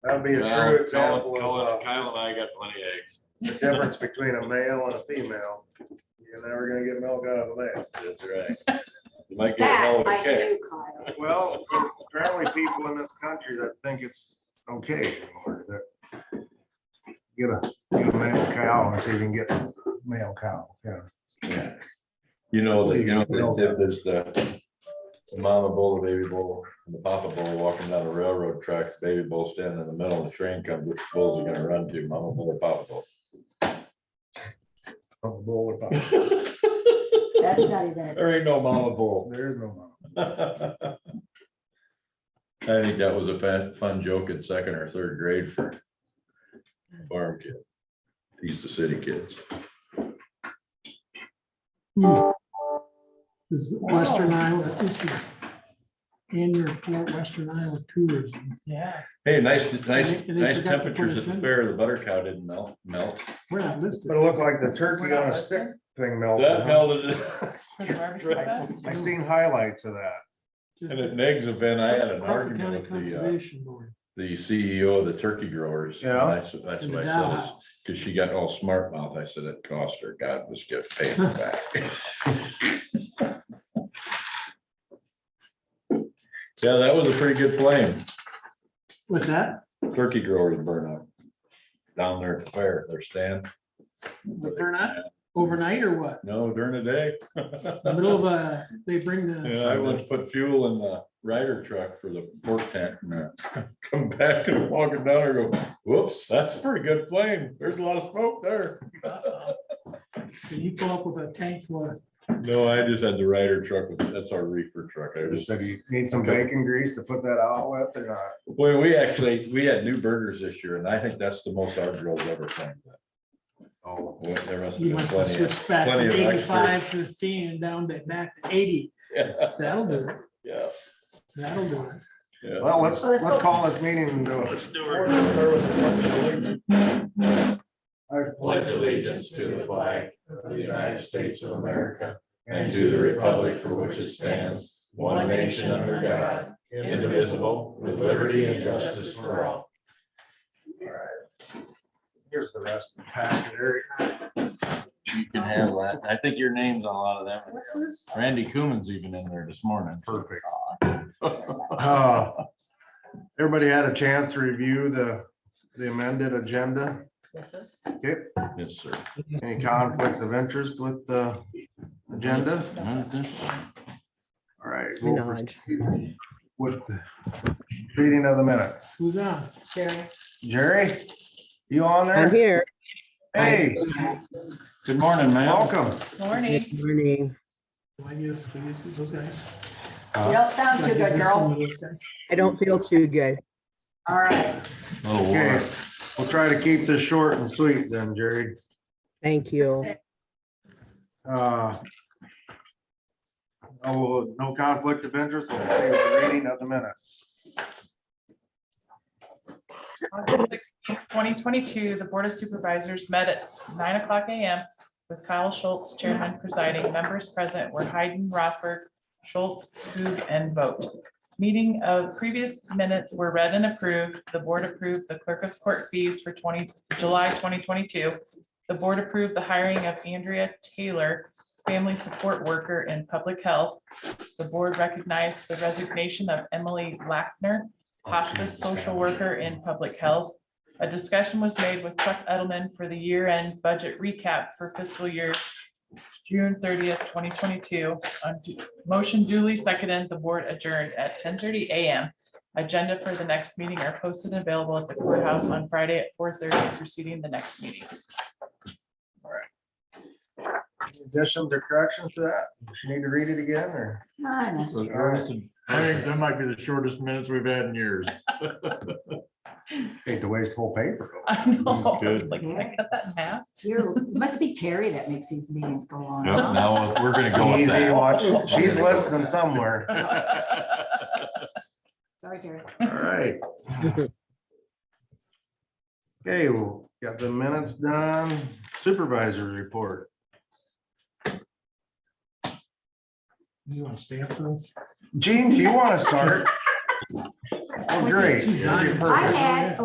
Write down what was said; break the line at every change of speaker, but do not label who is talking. That'd be a
Well,
true
Colin-
example of
Colin-
uh,
Kyle and I got plenty of eggs.
the difference between a male and a female. You're never gonna get milk out of that.
That's right. You might get a hell of
That
a
I
kick.
knew, Kyle.
Well, apparently people in this country that think it's okay anymore, that get a, get a male cow and see if you can get a male cow, yeah.
Yeah. You know, that, you know,
No.
they said there's the the mama bull, the baby bull, and the papa bull walking down the railroad tracks, baby bull standing in the middle, the train comes, which bulls are gonna run to, mama bull or papa bull?
A bull or pop.
That's not even a
There ain't no mama bull.
There is no mom.
I think that was a fun, fun joke in second or third grade for farm kid. These the city kids.
This is Western Iowa, this is annual report, Western Iowa tourism.
Yeah.
Hey, nice, nice,
And they- and they
nice
forgot to put
temperatures
us
at the
in.
fair. The butter cow didn't melt, melt.
We're not listed.
But it looked like the turkey on a stick thing melted.
That
huh?
melted,
For the barbecue fest?
I seen highlights of that.
Just
and at Meg's event, I had an
Crawford County
argument with the, uh,
Conservation Board
the CEO of the turkey growers. and
Yeah.
That's, that's
in the
what I
Dow
said, is,
House.
cause she got all smart mouth. I said, it cost her, God, just get paid her back. Yeah, that was a pretty good flame.
What's that?
Turkey growers burn up. Down there at the fair, their stand.
They burn up overnight or what?
No, during the day.
In the Middle of, uh, they bring
Yeah, I once
the,
put fuel in the rider truck for the pork tent and uh, come back and walk it down and go, whoops, that's a pretty good flame. There's a lot of smoke there.
Can you pull up with a tank full of
No, I just had the rider truck. with- That's our reefer truck. I
They just
just,
said you need some bacon grease to put that out with or not.
boy, we actually, we had new burgers this year and I think that's the most our girls ever flamed.
Oh.
Well, There must have
You
been
must have
plenty. of-
switched back
plenty
from
of
eighty-five, fifteen, and down to back to eighty.
Yeah,
That'll do it.
yeah,
That'll do it.
yeah.
Well, let's,
Well, let's
let's
go.
call this meeting. to- I
pledge allegiance to the flag of the United States of America and to the republic for which it stands, one nation under God, indivisible, with liberty and justice for all.
Here's the rest of the packet, Eric.
You can have that. I think your name's on a lot of them.
What's this?
Randy Coombs even in there this morning.
Perfect. Uh, Everybody had a chance to review the, the amended agenda.
Yes, sir.
Yes, sir.
Any conflicts of interest with the agenda? All right. we'll proceed With the reading of the minutes.
Who's on?
Sherry.
Jerry, you on
I'm
there?
here.
Hey,
Good morning, man.
welcome.
Morning.
Good morning.
Do I give these, those guys?
You don't sound too
Do I
good,
give this
girl.
one to those guys?
I don't feel too good.
All right.
Little
Okay, we'll try to keep this short and sweet then, Jerry.
Thank you.
Uh, Oh, no conflict of interest, we'll say with the reading of the minutes.
August sixteenth, twenty twenty-two, the Board of Supervisors met at nine o'clock AM with Kyle Schultz, Chairman presiding, members present were Hayden, Rosberg, Schultz, Skoog, and Vogt. Meeting of previous minutes were read and approved. The board approved the clerk of court fees for twenty, July twenty twenty-two. The board approved the hiring of Andrea Taylor, family support worker in public health. The board recognized the resignation of Emily Lackner, hospice social worker in public health. A discussion was made with Chuck Edelman for the year-end budget recap for fiscal year June thirtieth, twenty twenty-two. Motion duly seconded, the board adjourned at ten thirty AM. Agenda for the next meeting are posted and available at the courthouse on Friday at four thirty preceding the next meeting.
Additions or corrections to that? You Need to read it again or?
Hi, Nick.
I think that might be the shortest minutes we've had in years.
Hate to waste whole paper.
I know, I was
Good.
like, "Did I cut that in half.
You're, it must be Terry that makes these meetings go on. huh?
Now, we're gonna go with
Easy
that.
watch. She's listening somewhere.
Sorry, Terry.
All right. Okay, well, got the minutes done. Supervisor's report.
You want to stay up for those?
Gene, do you want to start? Oh, great.
She's dying.
I had